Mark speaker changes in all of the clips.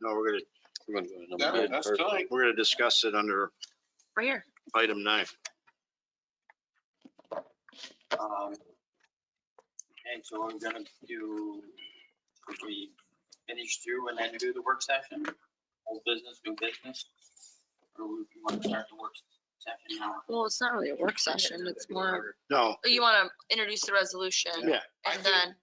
Speaker 1: No, we're gonna, we're gonna. go to number
Speaker 2: No,
Speaker 1: eight
Speaker 2: that's
Speaker 1: first.
Speaker 2: tight.
Speaker 1: We're gonna discuss it under
Speaker 3: Right here.
Speaker 1: item nine.
Speaker 4: Um, And so I'm gonna do, if we finish through and then do the work session, old business, new business. Or we you wanna start the work session now?
Speaker 3: Well, it's not really a work session. It's more,
Speaker 1: No,
Speaker 3: you want to introduce the resolution.
Speaker 1: Yeah.
Speaker 2: I think-
Speaker 3: And then,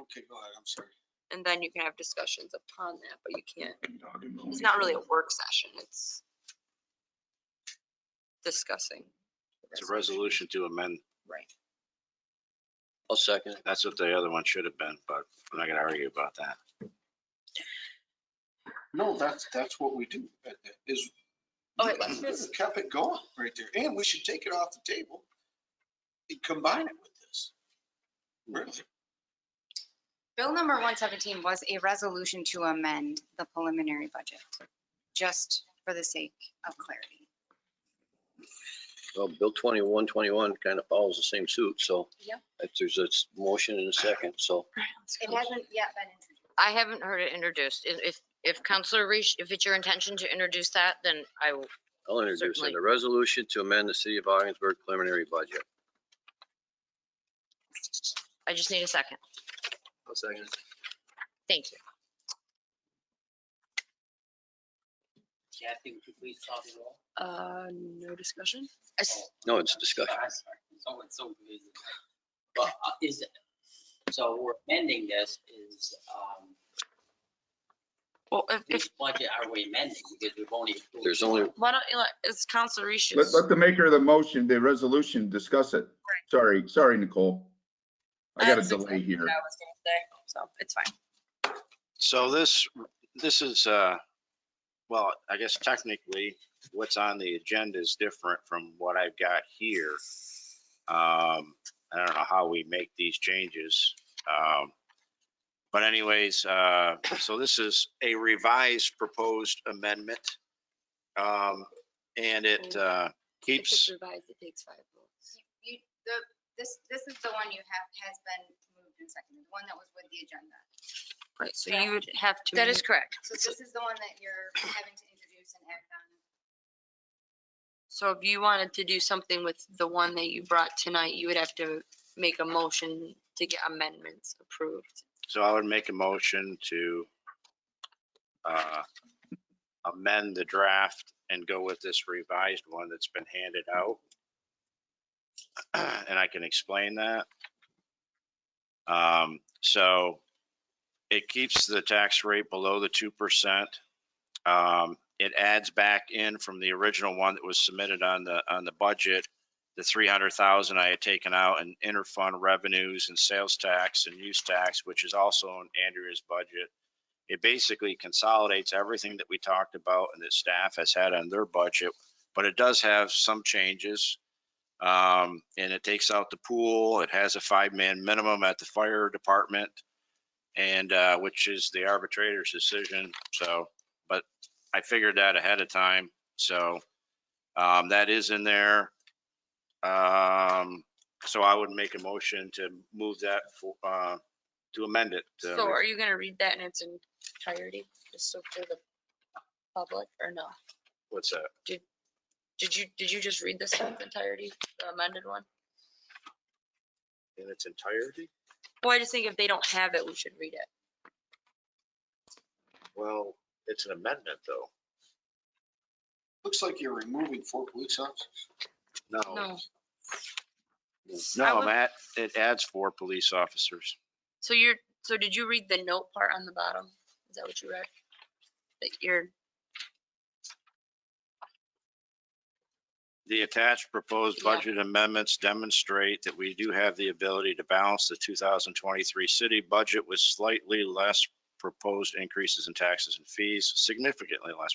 Speaker 2: Okay, go ahead, I'm sorry.
Speaker 3: and then you can have discussions upon that, but you can't, it's not really a work session. It's discussing.
Speaker 1: it's a resolution to amend.
Speaker 3: Right.
Speaker 4: I'll second.
Speaker 1: That's what the other one should have been, but I'm not gonna argue about that.
Speaker 2: No, that's, that's what we do, uh, uh, is.
Speaker 3: Oh, wait, let's-
Speaker 2: We've Kept it going right there, and we should take it off the table and combine it with this. Really?
Speaker 5: Bill number 117 was a resolution to amend the preliminary budget, just for the sake of clarity.
Speaker 6: Well, Bill 21, 21 kind of follows the same suit, so.
Speaker 5: Yep.
Speaker 6: If there's a s- motion and a second, so
Speaker 5: It hasn't yet been introduced.
Speaker 7: I haven't heard it introduced. If, if- if Counselor Reese, if it's your intention to introduce that, then I will.
Speaker 6: I'll introduce
Speaker 7: Certainly.
Speaker 6: it. A resolution to amend the city of Augsburg preliminary budget.
Speaker 7: I just need a second.
Speaker 4: I'll second.
Speaker 7: Thank you.
Speaker 4: Kathy, would you please talk it all?
Speaker 3: Uh, no discussion?
Speaker 7: I s-
Speaker 6: No, it's discussion.
Speaker 4: So it's so busy. But uh, is, so we're amending this is, um,
Speaker 3: Well, if, if,
Speaker 4: which budget are we amending? Because we've only. approved
Speaker 6: There's only,
Speaker 3: why don't you let, it's Counselor Reese's.
Speaker 8: Let, let the maker of the motion, the resolution, discuss it. Sorry, sorry, Nicole. I got a
Speaker 3: That's
Speaker 8: delay
Speaker 3: exactly
Speaker 8: here.
Speaker 3: what I was gonna say, So it's fine.
Speaker 1: So this, this is, uh, well, I guess technically, what's on the agenda is different from what I've got here. Um, I don't know how we make these changes. Um, But anyways, uh, so this is a revised proposed amendment. Um, And it uh,
Speaker 3: If it's
Speaker 1: keeps,
Speaker 3: revised, it takes five votes.
Speaker 5: You- You, the, this, this is the one you have, has been moved and seconded, the one that was with the agenda.
Speaker 3: Right, so you would have to.
Speaker 7: That is
Speaker 3: make-
Speaker 7: correct.
Speaker 5: So this is the one that you're having to introduce and act on.
Speaker 3: So if you wanted to do something with the one that you brought tonight, you would have to make a motion to get amendments approved.
Speaker 1: so I would make a motion to uh, amend the draft and go with this revised one that's been handed out. And I can explain that. Um, So it keeps the tax rate below the 2%. Um, It adds back in from the original one that was submitted on the, on the budget, the 300,000 I had taken out in interfund revenues and sales tax and use tax, which is also in Andrea's budget. It basically consolidates everything that we talked about and that staff has had on their budget, but it does have some changes. Um, and it takes out the pool. It has a five-man minimum at the fire department and, uh, which is the arbitrator's decision. So, but I figured that ahead of time. So, um, that is in there. Um, so I would make a motion to move that for, uh, to amend it. to-
Speaker 3: So are you gonna read that in its entirety, just so for the public or no?
Speaker 1: What's that?
Speaker 3: Did you, did you just read this in its entirety, the amended one?
Speaker 1: In its entirety?
Speaker 3: Well, I just think if they don't have it, we should read it.
Speaker 1: Well, it's an amendment, though.
Speaker 2: Looks like you're removing four police officers.
Speaker 1: No,
Speaker 3: No. I
Speaker 1: no,
Speaker 3: would-
Speaker 1: Matt, it adds four police officers.
Speaker 3: So you're, so did you read the note part on the bottom? Is that what you read? That you're,
Speaker 1: The attached proposed
Speaker 3: Yeah.
Speaker 1: budget amendments demonstrate that we do have the ability to balance the 2023 city budget with slightly less proposed increases in taxes and fees, significantly less.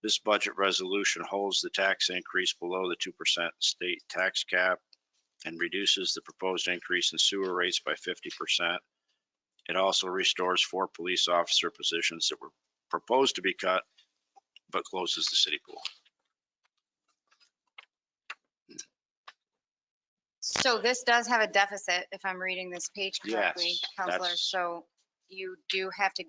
Speaker 1: This budget resolution holds the tax increase below the 2% state tax cap and reduces the proposed increase in sewer rates by 50%. It also restores four police officer positions that were proposed to be cut, but closes the city pool.
Speaker 5: So this does have a deficit, if I'm reading this page correctly,
Speaker 1: Yes,
Speaker 5: Counselor.
Speaker 1: that's-
Speaker 5: So you do have to